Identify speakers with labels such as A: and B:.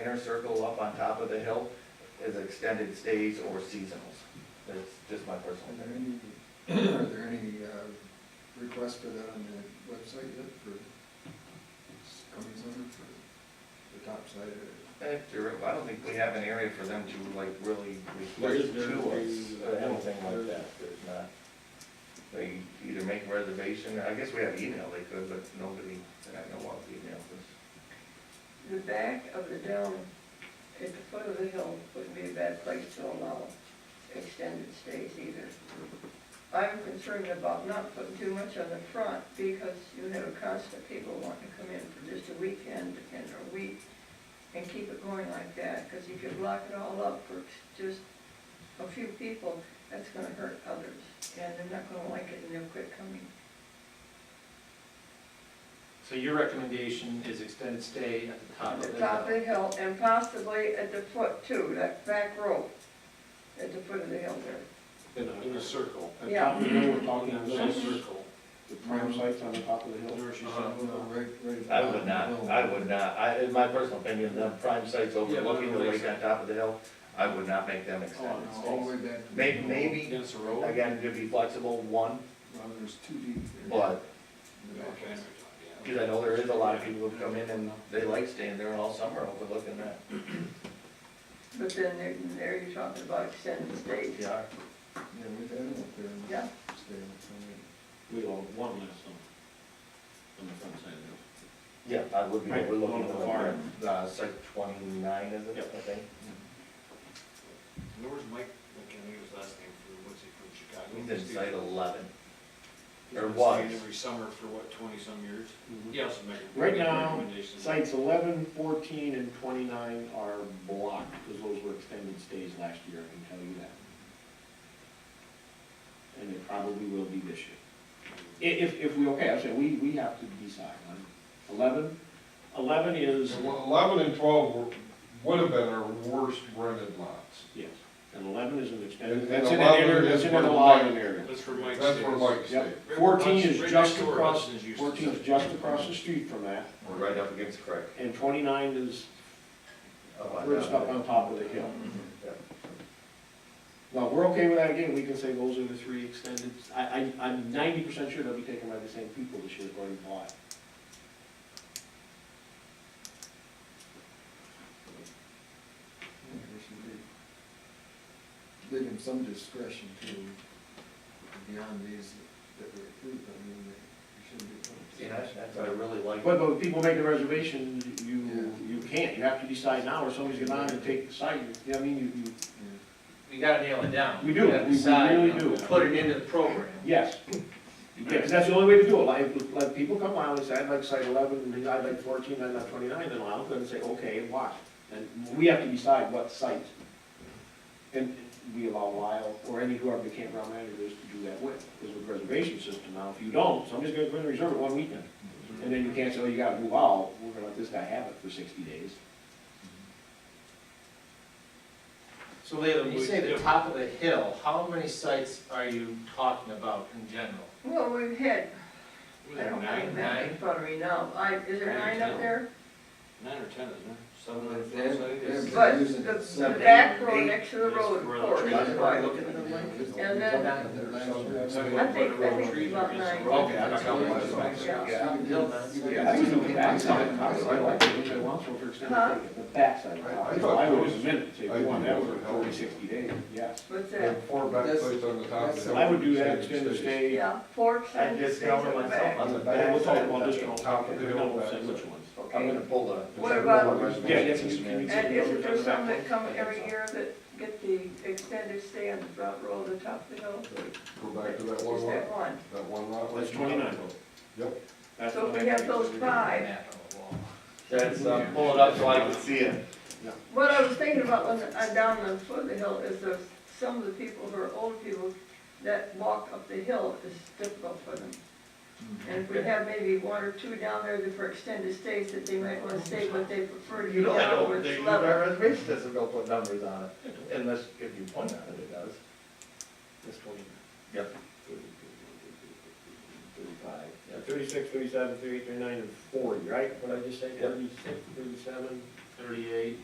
A: inner circle up on top of the hill is extended stays or seasonals. That's just my personal
B: Are there
A: opinion.
B: any, are there any uh, requests for that on the website yet for coming summer for the top side or?
A: Eh, you're right. I don't think we have an area for them to like really
C: There is-
A: request
C: uh, there
A: to us,
C: is
A: or
C: a-
A: anything like
C: there's-
A: that, there's not. They either make a reservation, I guess we have email they could, but nobody that I know of emailed us.
D: The back of the dome at the foot of the hill would be a bad place to allow extended stays either. I'm concerned about not putting too much on the front because you have a constant people wanting to come in for just a weekend and a week and keep it going like that, because if you block it all up for just a few people, that's gonna hurt others, and they're not gonna like it and they'll quit coming.
E: So your recommendation is extended stay at the top
A: Uh,
D: At
E: of
D: the
E: the
D: top of
E: hill?
D: the hill and possibly at the foot too, that back row, at the foot of the hill there.
C: In a, in a circle.
D: At Yeah. top
C: of the hill, we're
E: talking a little
C: circle. Uh-huh.
F: The prime site's on the top of the hill.
G: Uh-huh.
B: No, right, right at the
A: I
B: bottom of
A: would
B: the
A: not,
B: hill.
A: I would not, I, in my personal opinion, the prime sites overlooking the lake on top of the hill, I would not make them extended
B: oh, No, All the
A: stays.
B: way back. to the
A: May-
B: hill.
A: Maybe,
C: Oh, Against the road?
A: again, to be flexible, one,
B: Well, there's two deep there.
A: but,
B: In the back.
C: Okay.
A: because I know there is a lot of people who come in and they like staying there all summer overlooking that.
D: But then there, there you're talking about extended stays.
A: Yeah,
B: Yeah, we've had them up there. and
D: Yeah.
B: stayed up there.
C: We all, one last one, on the front side of the hill.
A: yeah, I would be
C: Right,
A: overlooking
C: along
A: the
C: the far
A: far, uh, site twenty-nine, is it,
C: Yep.
A: I think?
G: Where was Mike, I can't think of his last name, from, what's he from, Chicago?
A: He's in
G: He's
A: site
G: been-
A: eleven. Or
G: he's been
A: was.
G: staying Every summer for what, twenty-some years?
F: Mm-hmm.
G: He also made. a
F: Right now,
G: recommendation.
F: Sites 11, 14, and twenty-nine are blocked, because those were extended stays last year, I can tell you that. And it probably will be this year. I- If, if we, okay, I said, we, we have to decide on eleven. Eleven is,
H: Well, Eleven and twelve were, would have been our worst rented lots.
F: yes, and eleven is an
H: And-
F: extended,
H: and
F: that's in an
H: 11
F: area, that's
H: is
F: in an
H: where
F: allowing
H: Mike-
F: area.
G: That's where Mike
H: That's where Mike stayed.
F: Yep,
G: Right-
F: fourteen
G: right
F: is
G: next
F: just
G: door,
F: across,
G: Hudson's used to
F: fourteen
G: say.
F: is just across the street from that,
A: We're right up against the creek.
F: and twenty-nine is
A: up on
F: We're just
A: top
F: up
A: of
F: on
A: it.
F: top of the hill.
A: Yeah.
F: Well, we're okay with that, again, we can say those are the three extended, I, I, I'm ninety percent sure they'll be taken by the same people this year, according to lot.
B: Yeah, we should be- Give him some discretion too, beyond these that we approved, I mean, they shouldn't be.
A: See, that's, that's what I really like.
F: But, but if people make a reservation, you, you can't, you have to decide now, or somebody's gonna have to take the site, you know, I mean, you, you,
B: Yeah.
E: We gotta nail it down.
F: We do,
E: gotta
F: we- we
E: decide,
F: really do.
E: Put it into the program.
F: yes. Yeah, because that's the only way to do it, like, like people come out and say, I'd like site eleven, and I'd like fourteen, I'd like twenty-nine, then I'll go and say, okay, why? And we have to decide what site, and we allow Lyle or any whoever the campground manager is to do that with, because with reservation system now, if you don't, somebody's gonna go in and reserve it one weekend. And then you can't say, oh, you gotta move out, we're gonna let this guy have it for sixty days.
E: So Leland,
C: You
E: you
C: say
E: say the top of the hill, how many sites are you talking about in general?
D: Well, we've had,
G: Was
D: I
G: it
D: don't
G: nine,
D: have that in front of me now, I, is there nine up there?
G: nine or ten, isn't there? Seven
B: Well,
G: on the
B: they-
G: front side,
B: they-
G: yes.
D: But
B: using
D: the, the
B: seven,
D: back row
A: eight,
D: next to the road,
G: where
D: of
G: the
D: course,
G: trees
D: is
G: are
D: wide.
G: looking at
D: And then- I think, I think it's about nine.
E: Okay, I
D: Yeah.
F: I think it's the backside, I like it, if they want to for
D: Huh?
F: extended, the backside.
H: I- I
F: So
H: thought
F: I would
H: those-
F: admit, say,
H: I
F: we want
H: think
F: that
H: those
F: for
H: would help.
F: forty, sixty days, yes.
D: What's
H: They
D: that?
H: had four back
B: That's-
H: plates on the top. of the hill.
F: I would do that, extended stay,
D: Yeah, four
A: I
D: extended stays
A: discovered
D: in the
A: myself
D: back.
A: on the
F: and
A: back.
F: we'll talk about this one.
H: Top of the hill,
F: We'll say
H: backside.
F: which ones.
A: I'm gonna
D: Okay,
A: pull a.
D: What about-
F: Yeah, yeah, can you- can you-
D: and isn't there some that come every year that get the extended stay on the front row of the top of the hill?
H: Go back to that one
D: Just that
H: lot,
D: one.
H: that one lot.
F: That's 29.
H: Yep.
F: That's
D: So
F: what
D: if
F: I
D: we have
F: think.
D: those five,
E: Map on the wall.
A: That's, uh, pull it up so I can see it.
D: what I was thinking about when I down on the foot of the hill is there's some of the people who are old people that walk up the hill is difficult for them. And if we have maybe one or two down there that for extended stays that they might wanna stay, but they prefer to
A: You
D: be
A: don't
D: down
A: know,
D: where
A: they,
D: it's
A: our
D: level.
A: reservation doesn't go put numbers on it, unless if you point out it, it does.
C: That's twenty-nine.
A: Yep.
F: Thirty-five, yeah, thirty-six, thirty-seven, thirty-eight, thirty-nine, and forty, right? What did I just say,
A: Yep.
F: thirty-six, thirty-seven,
E: Thirty-eight.